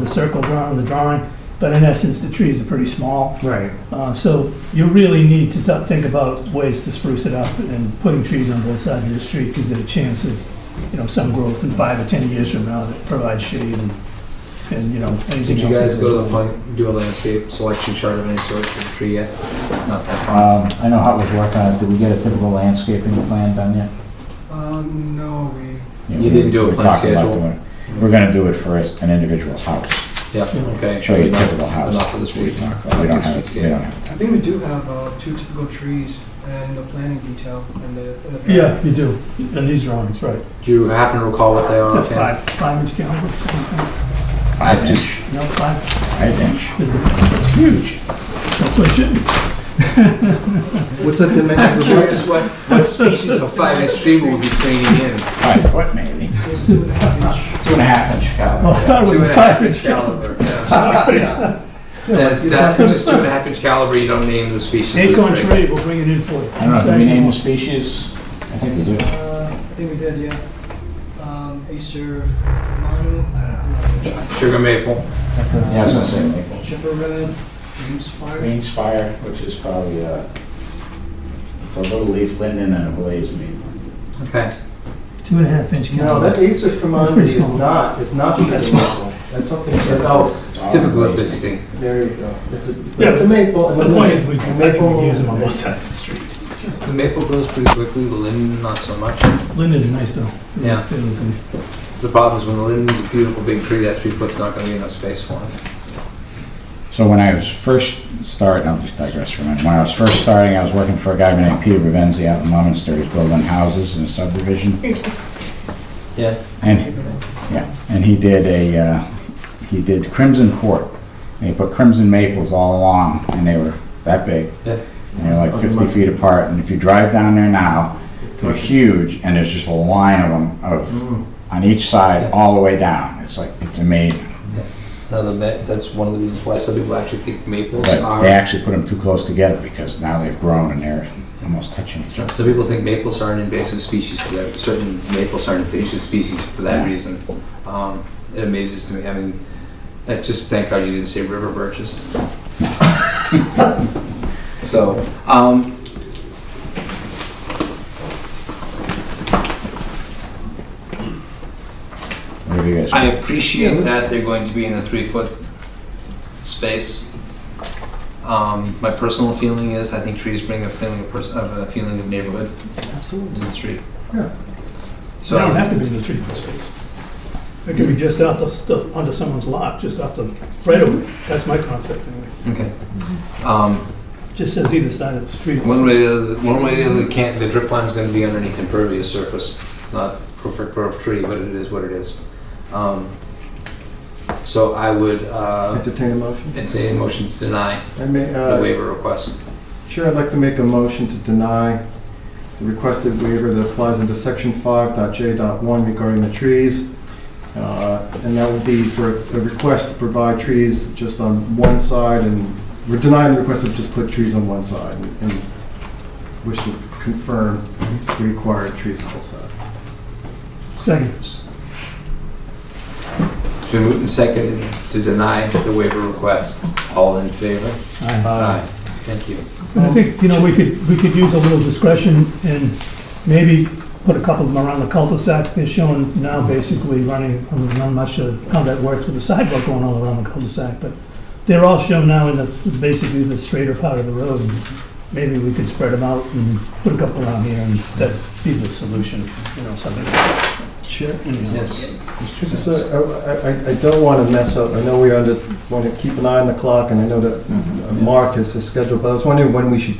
the circle drawn on the drawing, but in essence, the trees are pretty small. Right. Uh, So you really need to th- think about ways to spruce it up and putting trees on both sides of the street gives it a chance of, you know, some growth in five or 10 years from now that provides shade and, and, you know, anything Did else. you guys that- go to the point, do a landscape selection chart of any sort for the tree yet? Not that far. Um, I know how it was working on it. Did we get a typical landscaping plan done yet? Um, no, we, Yeah, You we- didn't do a we plan talked about schedule? doing it. We're gonna do it for us- an individual house, Yeah, okay. show you a Enough- typical house. Enough for this We week. talked about- we don't This have, week's it- we game. don't have. it. I think we do have, uh, two typical trees and the planting detail in the, in the. back. Yeah, you do, in these drawings, right. Do you happen to recall what they are? It's a offhand? five, five-inch caliber, something, Five just- inch, no, five, five inch, huge. that's what it should be. What's the dimensions? I'm curious what, what species of five-inch tree will be training in? Five foot maybe, So it's two and a half inch. two and a half inch Oh, I caliber. thought it Two was and a a half five-inch inch caliber. caliber. yeah, sorry. That, that, uh, just two and a half inch caliber, you don't name the species. of the Acorn tree. tree, we'll bring it in for you. I don't know, do we name the species? I think we do. Uh, I think we did, yeah. Um, Acer uh, Manu, Sugar maple. Yeah, I was gonna say maple. Chipper Red, Green Spire. Green spire, which is probably a, it's a little leaf linden and a blaze maple. Okay. Two and a half inch No, caliber. that Acer That's Fermanti pretty is small. not, it's not sugar That's small. maple. That's something else. It's all Typical of blaze this maple. thing. There you go. It's a, Yeah, it's a maple. and The it's a point is, we, I maple- think we can use them on both sides of the street. The maple grows pretty quickly, the linden not so much. Linden's nice though. Yeah. They're looking- The problem is when the linden's a beautiful big tree, that three foot's not gonna be enough space for it. So when I was first starting, I'll just digress for a minute. When I was first starting, I was working for a guy named Peter Revenzi out in Lemonster. He's building houses in a subdivision. Yeah. And, yeah, and he did a, uh, he did crimson court. And he put crimson maples all along and they were that big. Yeah. And they're like 50 feet apart. And if you drive down there now, they're huge and there's just a line of them of, on each side, all the way down. It's like, it's amazing. Now, the ma- that's one of the reasons why some people actually think maples But they are, actually put them too close together because now they've grown and they're almost touching each some, other. some people think maples are an invasive species for that, certain maples are an invasive species for that Yeah. reason. Um, it amazes me, I mean, I just thank God you didn't say river birches. So, um, What do you guys? I appreciate that they're going to be in a three-foot space. Um, my personal feeling is, I think trees bring a feeling of, pers- of a feeling of neighborhood to Absolutely. the street. Yeah. So So it don't have to be in the three foot space. It could be just off the- the, onto someone's lot, just off the right of way. That's my concept anyway. Okay. Um, Just says either side of the street. one way, or the- one way, or the other, can't, the drip line's gonna be underneath impervious surface. It's not perfect for a tree, but it is what it is. Um, so I would, uh, Entertain a motion? entertain a motion to deny I may, the uh, waiver request. sure, I'd like to make a motion to deny the requested waiver that applies under section five dot J dot one regarding the trees. Uh, And that would be for a request to provide trees just on one side and we're denying the request to just put trees on one side and- and wish to confirm the required trees on both sides. Second. It's been moved and seconded to deny the waiver request. All in favor? Aye. Aye. Thank you. And I think, you know, we could, we could use a little discretion and maybe put a couple of them around the cul-de-sac. They're shown now basically running, I'm not much sure how that works with the sidewalk going all around the cul-de-sac, but they're all shown now in the, basically the straighter part of the road. Maybe we could spread them out and put a couple around here and that'd be the solution, you know, something. Chair? Yes. Just, uh, I I- I don't want to mess up, I know we under, want to keep an eye on the clock, and I know that uh, Mark is his schedule, but I was wondering when we should,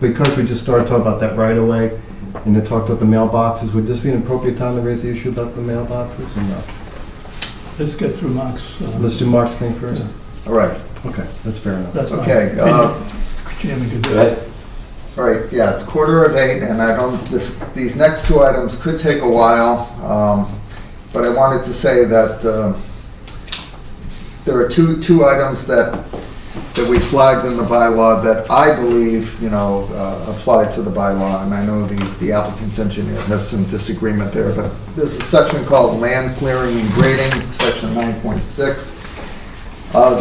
because we just started talking about that right away, and then talked about the mailboxes, would this be an appropriate time to raise the issue about the mailboxes, or no? Let's get through Mark's. uh, Let's do Mark's thing first. All right, Okay, that's fair enough. That's fine. okay, uh, Chairman could do Go it. ahead. all right, yeah, it's quarter of eight, and I don't, this, these next two items could take a while, um, but I wanted to say that, um, there are two, two items that, that we flagged in the bylaw that I believe, you know, uh, apply to the bylaw, and I know the, the applicant's engineer has some disagreement there, but there's a section called land clearing and grading, section nine point six, Uh,